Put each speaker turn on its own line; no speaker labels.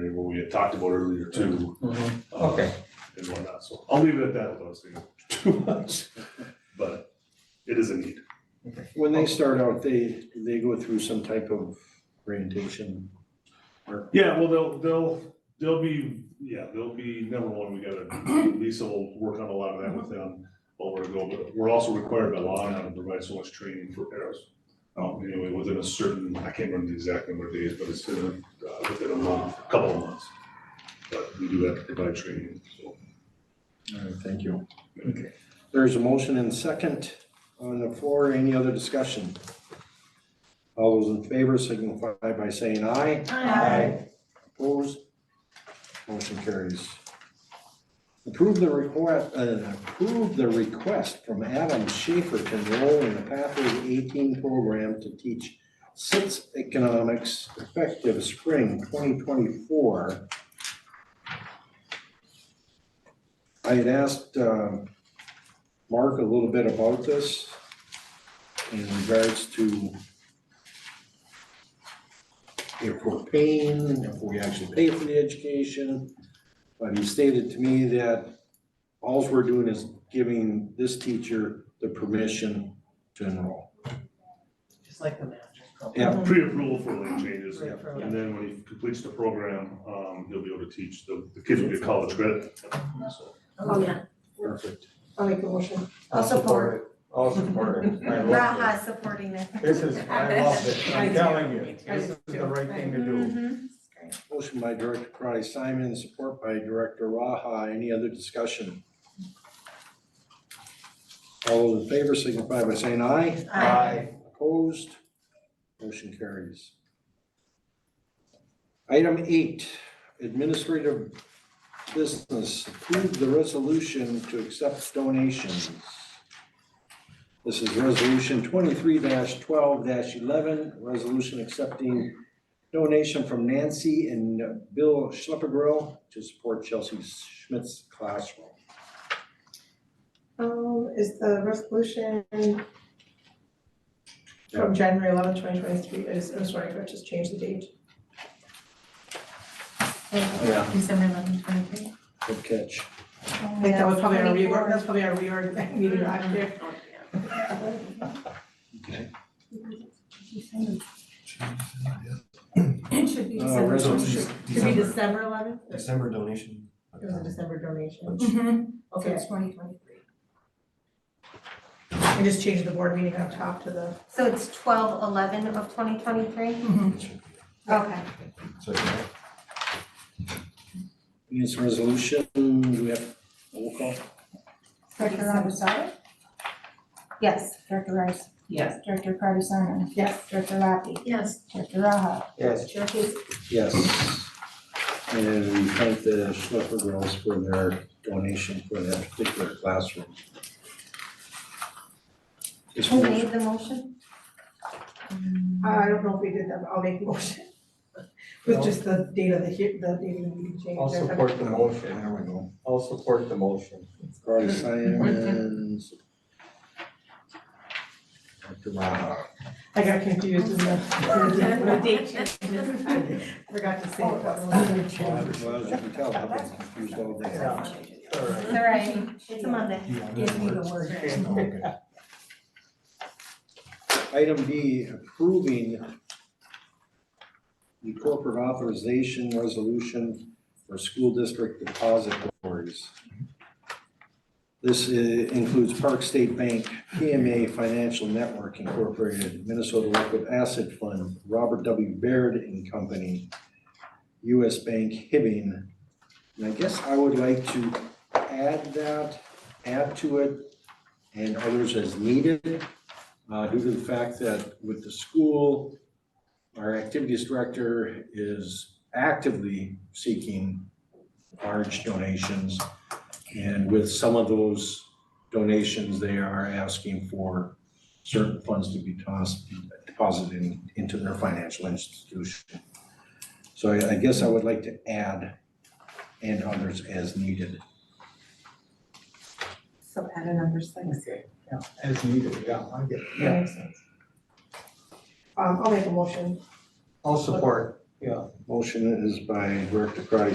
and what we had talked about earlier too.
Mhm.
uh,
Okay.
And whatnot, so I'll leave it at that without saying too much, but it is a need.
When they start out, they, they go through some type of orientation.
Yeah, well, they'll, they'll, they'll be, yeah, they'll be, number one, we gotta, Lisa will work on a lot of that with them while we're going, but we're also required by law now to provide so much training for arrows. Um, anyway, within a certain, I can't remember the exact number of days, but it's been, uh, within a month, a couple of months. But we do have to provide training, so.
All right, thank you.
Okay.
There's a motion and second on the floor. Any other discussion? All those in favor signify by saying aye. Opposed? Motion carries. Approve the request, uh, approve the request from Adam Schaefer to enroll in the Pathways eighteen program to teach six economics effective spring twenty twenty-four. I had asked, um, Mark a little bit about this in regards to if we're paying, if we actually pay for the education. But he stated to me that alls we're doing is giving this teacher the permission to enroll.
Just like the master's program.
Yeah.
Pre-approval for lane changes,
Great program.
and then when he completes the program, um, he'll be able to teach, the, the kids will get college credit, so.
Oh, yeah,
Perfect.
I'll make a motion. I'll support.
I'll support it. I love it.
Raha supporting it.
This is, I love it.
I
I'm
do.
telling you,
Me too.
this is the right thing to do.
Mhm.
Motion by Director Karati Simon, support by Director Raha. Any other discussion? All those in favor signify by saying aye.
I,
Opposed? Motion carries. Item eight, administrative business, approve the resolution to accept donations. This is resolution twenty-three twelve eleven, resolution accepting donation from Nancy and Bill Schleppergrill to support Chelsea Schmidt's classroom.
Um, is the resolution from January eleventh, twenty twenty-three, I just, I'm sorry, I just changed the date.
yeah,
December eleventh, twenty-three.
Good catch.
I think that was probably our reorg, that's probably our reorg meeting last year.
Okay.
It should be
Uh,
December,
resolution.
should be December eleventh, it
December donation.
was a December donation,
Mhm.
Okay,
okay,
twenty twenty-three.
I just changed the board meeting up top to the,
So it's twelve eleven of twenty twenty-three?
Mm-hmm.
Okay.
So, yeah,
This resolution, do we have roll call?
Director Lavasada?
Yes.
Director Rice?
yes.
Director Cardi Simon?
yes,
Director Lapi?
Yes.
Director Raha?
yes.
Chair Casey.
Yes. And we thank the Schlepper girls for their donation for that particular classroom. Just
Who
motion-
made the motion?
Uh, I don't know if we did that, but I'll make a motion. With just the date of the, he- the date of the meeting change.
I'll support the motion.
There we go.
I'll support the motion.
Carly Simons. Dr. Raha.
I got confused in the, in the date change. I Forgot to say. what that was.
Well, as you can tell, I've been confused all day.
All right.
All right, it's a Monday.
yeah,
Give me the
works.
word.
Oh, okay.
Item B, approving the corporate authorization resolution for school district depositories. This uh, includes Park State Bank, PMA Financial Network Incorporated, Minnesota Liquid Asset Fund, Robert W. Baird and Company, US Bank Hibbing. And I guess I would like to add that, add to it, and others as needed, uh, due to the fact that with the school, our activities director is actively seeking large donations. And with some of those donations, they are asking for certain funds to be tossed, deposited in- into their financial institution. So I, I guess I would like to add and others as needed.
So add a number six.
Okay, yeah, as needed, yeah, I get it,
That
yeah.
makes sense.
Um, I'll make a motion.
I'll support, Yeah.
Motion is by Director Karati,